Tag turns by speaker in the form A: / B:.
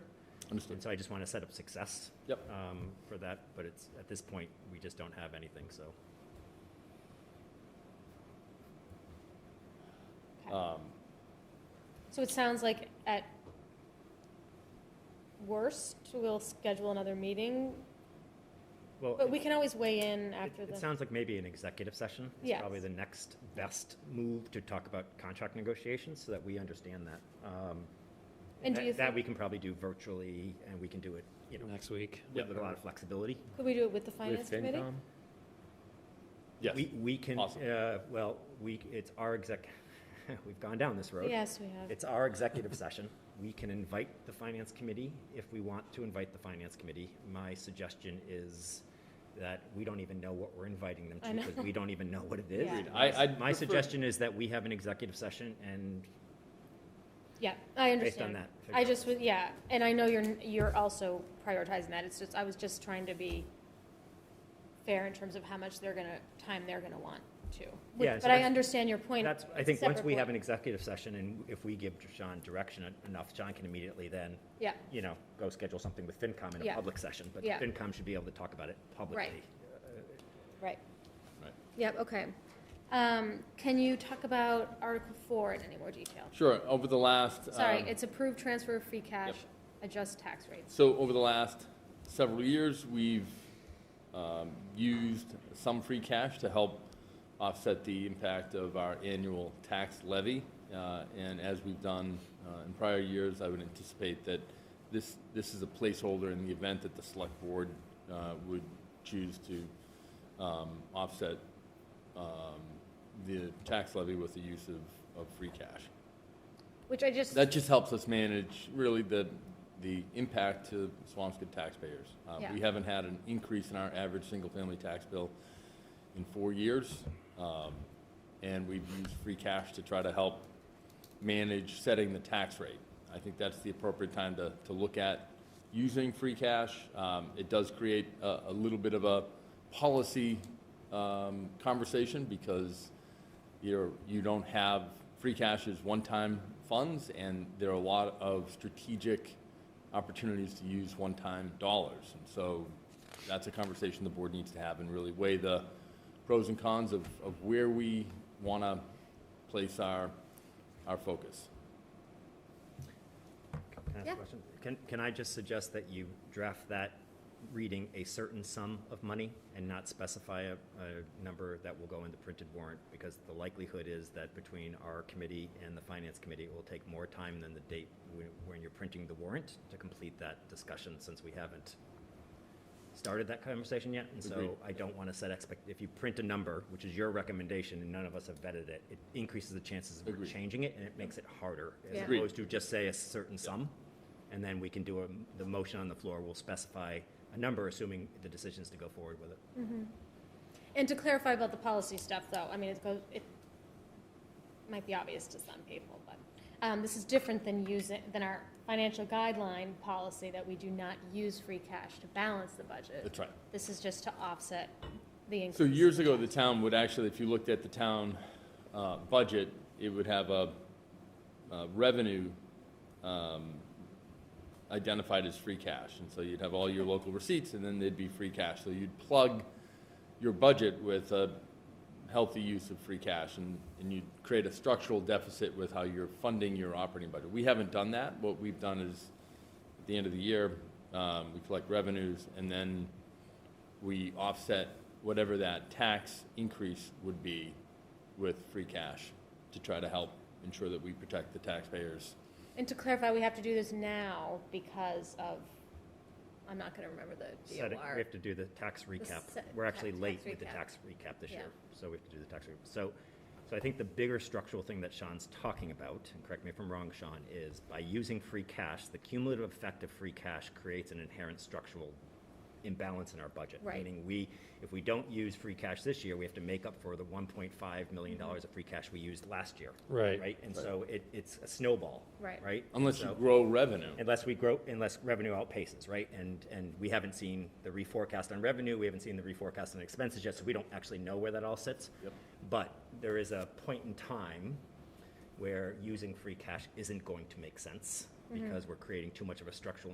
A: Understood.
B: And so I just want to set up success.
A: Yep.
B: um, For that, but it's, at this point, we just don't have anything, so.
C: Okay.
A: Um,
C: So it sounds like at worst, we'll schedule another meeting,
B: Well,
C: but
B: it-
C: we can always weigh in
B: it-
C: after
B: It
C: the.
B: sounds like maybe an executive session is
C: Yes.
B: probably the next best move to talk about contract negotiations so that we understand that. Um,
C: And do
B: that-
C: you
B: That
C: think-
B: we can probably do virtually and we can do it, you know,
D: next week.
A: Yep.
B: with a lot of flexibility.
C: Could we do it with the finance
D: With
C: committee?
D: FinCom?
A: Yes,
B: We, we can,
A: Awesome.
B: uh, well, we, it's our exec, we've gone down this road.
C: Yes, we have.
B: It's our executive session. We can invite the finance committee if we want to invite the finance committee. My suggestion is that we don't even know what we're inviting them
C: I
B: to
C: know.
B: because we don't even know what it is.
C: Agreed.
A: I- I'd
B: My
A: prefer-
B: suggestion is that we have an executive session and
C: Yeah, I understand.
B: based on that. figure
C: I
B: out.
C: just was, yeah, and I know you're, you're also prioritizing that, it's just, I was just trying to be fair in terms of how much they're gonna, time they're gonna want to. Which-
B: Yeah, so
C: But I
B: that's-
C: understand your point.
B: That's, I think, once
C: separate
B: we have an
C: point.
B: executive session and if we give Sean direction en- enough, Sean can immediately then,
C: Yeah,
B: you know, go schedule something with FinCom in a
C: Yeah.
B: public session. But
C: Yeah.
B: FinCom should be able to talk about it publicly.
C: right.
A: Right.
C: Yep, okay. Um, can you talk about Article Four in any more detail?
A: Sure, over the last.
C: Sorry,
A: um,
C: it's approved transfer of free cash, adjust tax rates.
A: So over the last several years, we've um, used some free cash to help offset the impact of our annual tax levy. Uh, And as we've done uh, in prior years, I would anticipate that this, this is a placeholder in the event that the select board uh, would choose to um, offset um, the tax levy with the use of, of free cash.
C: Which I just,
A: That just helps us manage really the, the impact to Swampscott taxpayers. Uh,
C: Yeah.
A: We haven't had an increase in our average single-family tax bill in four years. um, And we've used free cash to try to help manage setting the tax rate. I think that's the appropriate time to, to look at using free cash. Um, It does create a, a little bit of a policy um, conversation because you're, you don't have, free cash is one-time funds, and there are a lot of strategic opportunities to use one-time dollars. And so that's a conversation the board needs to have and really weigh the pros and cons of, of where we want to place our, our focus.
B: Can I ask a
C: Yeah.
B: question? Can, can I just suggest that you draft that reading a certain sum of money and not specify a, a number that will go in the printed warrant? Because the likelihood is that between our committee and the finance committee, it will take more time than the date when, when you're printing the warrant to complete that discussion, since we haven't started that conversation yet. And
A: Agreed.
B: so I don't want to set expect, if you print a number, which is your recommendation, and none of us have vetted it, it increases the chances of we're
A: Agreed.
B: changing it, and it makes it harder. as
C: Yeah.
A: Agreed.
B: opposed to just say a certain sum, and then we can do a, the motion on the floor will specify a number, assuming the decision is to go forward with it.
C: and to clarify about the policy stuff though, I mean, it goes, it might be obvious to some people, but, um, this is different than using, than our financial guideline policy that we do not use free cash to balance the budget.
A: That's right.
C: This is just to offset the increase.
A: So years ago, the town would actually, if you looked at the town uh, budget, it would have a uh, revenue um, identified as free cash. And so you'd have all your local receipts, and then they'd be free cash. So you'd plug your budget with a healthy use of free cash, and, and you'd create a structural deficit with how you're funding your operating budget. We haven't done that. What we've done is, at the end of the year, um, we collect revenues, and then we offset whatever that tax increase would be with free cash to try to help ensure that we protect the taxpayers.
C: And to clarify, we have to do this now because of, I'm not gonna remember the
B: Set it- We
C: DOR.
B: have to do the tax recap.
C: set-
B: We're actually
C: ta-
B: late
C: tax
B: with the
C: recap.
B: tax recap this
C: Yeah.
B: year, so we have to do the tax recap. So, so I think the bigger structural thing that Sean's talking about, and correct me if I'm wrong, Sean, is by using free cash, the cumulative effect of free cash creates an inherent structural imbalance in our budget.
C: Right.
B: Meaning we, if we don't use free cash this year, we have to make up for the one point five million
C: Mm-hmm.
B: dollars of free cash we used last year.
D: Right.
B: Right, and so it, it's a snowball.
C: Right.
B: Right?
A: Unless you
B: So-
A: grow revenue.
B: unless we grow, unless revenue outpaces, right? And, and we haven't seen the reforecast on revenue, we haven't seen the reforecast on expenses yet, so we don't actually know where that all sits.
A: Yep.
B: But there is a point in time where using free cash isn't going to make sense because we're creating too much of a structural